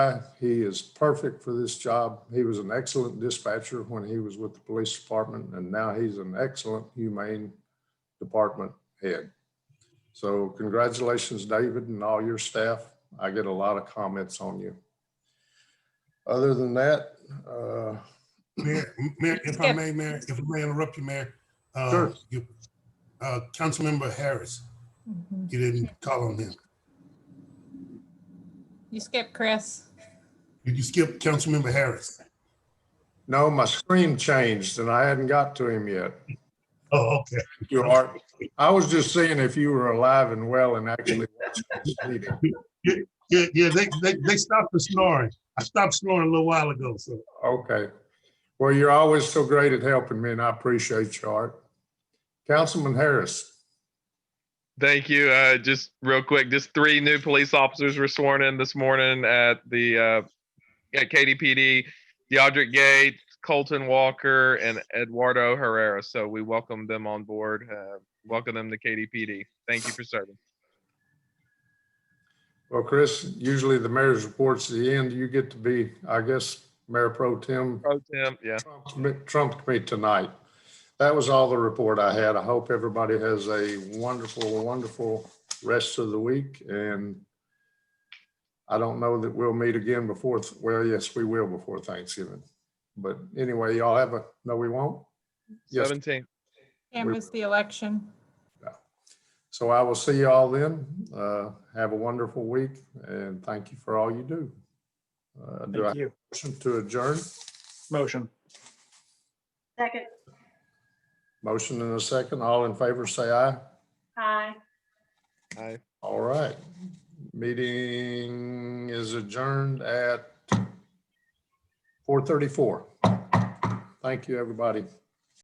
guy. He is perfect for this job. He was an excellent dispatcher when he was with the police department, and now he's an excellent humane department head. So congratulations, David, and all your staff. I get a lot of comments on you. Other than that, uh, Mayor, Mayor, if I may, Mayor, if I may interrupt you, Mayor. uh, Sure. you- Uh, Councilmember Harris, you didn't call on him. You skipped Chris. Did you skip Councilmember Harris? no, my screen changed and I hadn't got to him yet. Oh, okay. You are, I was just seeing if you were alive and well and actually watching this meeting. Yeah, yeah, they, they, they stopped the snoring. I stopped snoring a little while ago, so. Okay. Well, you're always so great at helping me and I appreciate your art. Councilman Harris, Thank you. Uh, just real quick, just three new police officers were sworn in this morning at the uh, at KDPD: Deodric Gates, Colton Walker, and Eduardo Herrera. So we welcome them on board. Uh, welcome them to KDPD. Thank you for serving. well, Chris, usually the mayor's report's the end. You get to be, I guess, Mayor Pro Tem Pro Tem, yeah. trumped me- trumped me tonight. That was all the report I had. I hope everybody has a wonderful, wonderful rest of the week and I don't know that we'll meet again before, th- well, yes, we will before Thanksgiving. But anyway, y'all have a, no, we won't. Yes. Seventeen. Canvass the election. So I will see y'all then. Uh, have a wonderful week and thank you for all you do. Uh, do I have Thank you. a motion to adjourn? Motion. Second, Motion in a second. All in favor, say aye. aye. Hi. All right. Meeting is adjourned at four thirty-four. Thank you, everybody.